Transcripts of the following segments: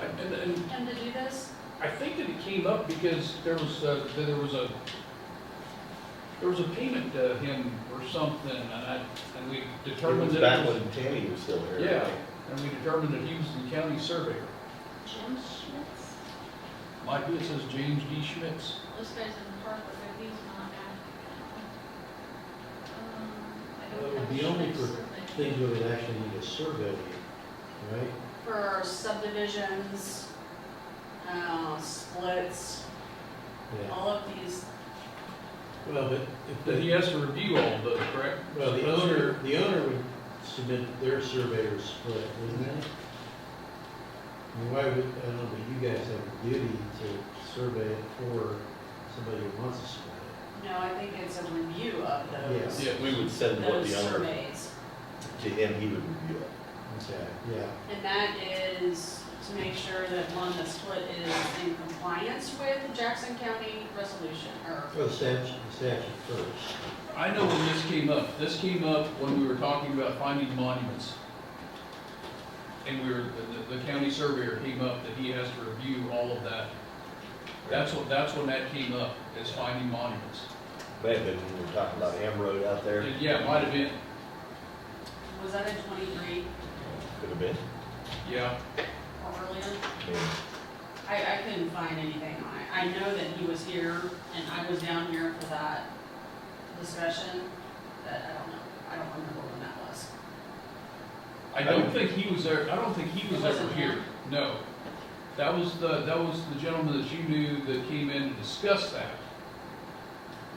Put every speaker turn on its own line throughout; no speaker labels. And, and
him to do this?
I think that it came up because there was, uh, that there was a, there was a payment to him or something, and I, and we
It
determined
was
that.
back
it was-
when Tammy was still here.
Yeah, and we determined that he was the county surveyor.
Jim Schmitz?
Michael, it says James D. Schmitz.
Those guys in the park, but they're- he's not active. Um, I
Well,
don't
it would
have
be only
Schmidt's
for
survey.
Things we would actually need a survey, right?
for subdivisions, uh, splits,
Yeah.
all of these,
Well, but if
That he
the,
has to review all those, correct?
well, the owner, the owner would submit their surveyor's split, wouldn't they? I mean, why would, I don't know, but you guys have a duty to survey it for somebody who wants to split it.
no, I think it's a review of those,
Yeah.
We would send what
those
the owner,
surveys.
to him, he would review it.
Okay, yeah,
And that is to make sure that one, the split is in compliance with Jackson County resolution, or,
well, the statute, the statute first.
I know when this came up, this came up when we were talking about finding monuments. And we were, the, the county surveyor came up that he has to review all of that. That's what, that's when that came up, is finding monuments.
May have been when we were talking about Am Road out there,
And Yeah, it might have been,
was that in twenty-three
could have been.
yeah,
or earlier?
I mean,
I, I couldn't find anything on it. I know that he was here and I was down here for that discussion, but I don't know, I don't remember when that was.
I don't think he was there, I don't think he was
It wasn't
ever here,
him?
no. That was the, that was the gentleman that you knew that came in to discuss that.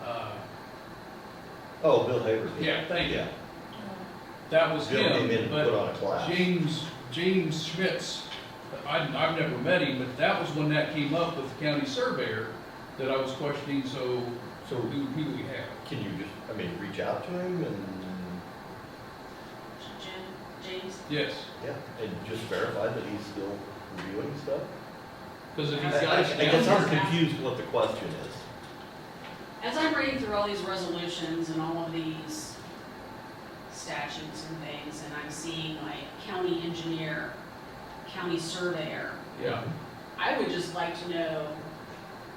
Uh,
Oh, Bill Haverty.
yeah, thank you,
Yeah,
that was
Bill came in
him,
and
but
put on a class.
James, James Schmitz, I, I've never met him, but that was when that came up with the county surveyor that I was questioning, so
So
who, who do we have?
can you just, I mean, reach out to him and,
Jim, James,
Yes,
yeah, and just verify that he's still reviewing stuff?
because if he's
I
got
I-
it
I guess
down,
I'm confused what the question is.
as I'm reading through all these resolutions and all of these statutes and things, and I'm seeing like county engineer, county surveyor,
yeah,
I would just like to know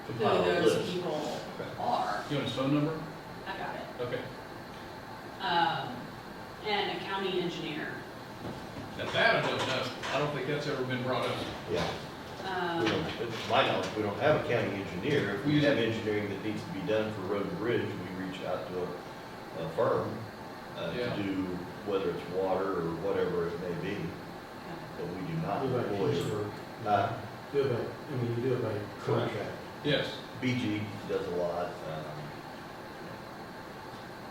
who
Compile a
those
list.
people
Okay.
are.
you want his phone number?
I got it.
Okay,
Um, and a county engineer.
now that I don't know, I don't think that's ever been brought up.
Yeah,
Um,
we don't, it's my knowledge, we don't have a county engineer. If we have engineering that needs to be done for road and bridge, we reach out to a, a firm uh,
Yeah.
to do, whether it's water or whatever it may be, but we do not
Do it by
employ.
piecework.
Uh,
Do it by, I mean, you do it by
Correct.
contract.
Yes,
BG does a lot, um,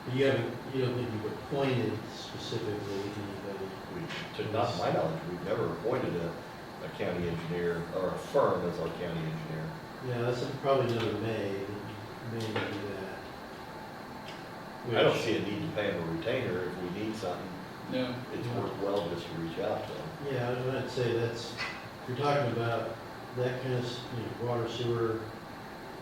But You haven't, you don't think you've appointed specifically anybody?
we, to not my knowledge, we've never appointed a, a county engineer or a firm as our county engineer.
Yeah, that's probably another May, that May do that.
I don't see a need to pay him a retainer if we need something.
no,
It's worth well just to reach out to him.
Which, Yeah, I was gonna say that's, if you're talking about that kind of, s- you know, water sewer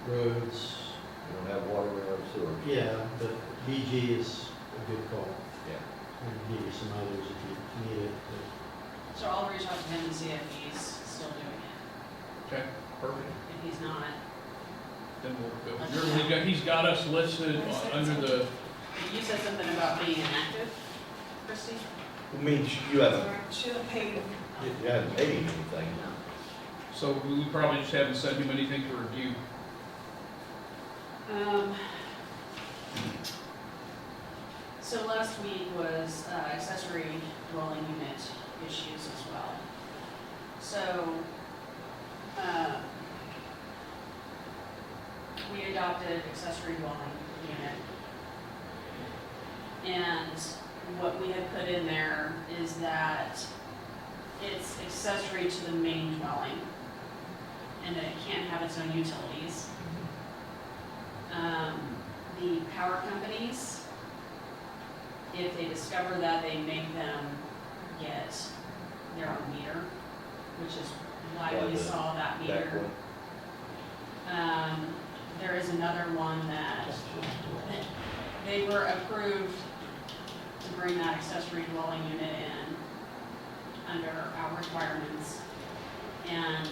roads,
We don't have water, we don't have sewer.
yeah, but BG is a good call.
Yeah.
I can give you some others if you need it, but
So I'll reach out to him and see if he's still doing it.
okay, perfect,
If he's not,
then we'll go. Remember, he got, he's got us listed on- under the,
you said something about being inactive, Christie?
I mean, sh- you haven't,
Should have paid him.
you you haven't paid him anything.
No.
so we probably just haven't sent him anything to review.
Um, so last week was uh, accessory dwelling unit issues as well. So, uh, we adopted accessory dwelling unit. And what we had put in there is that it's accessory to the main dwelling. And that it can't have its own utilities um, the power companies, if they discover that, they make them get their own meter, which is why
Why
we
the-
saw that
That
meter.
one.
Um, there is another one that
that's just-
they were approved to bring that accessory dwelling unit in under our requirements. And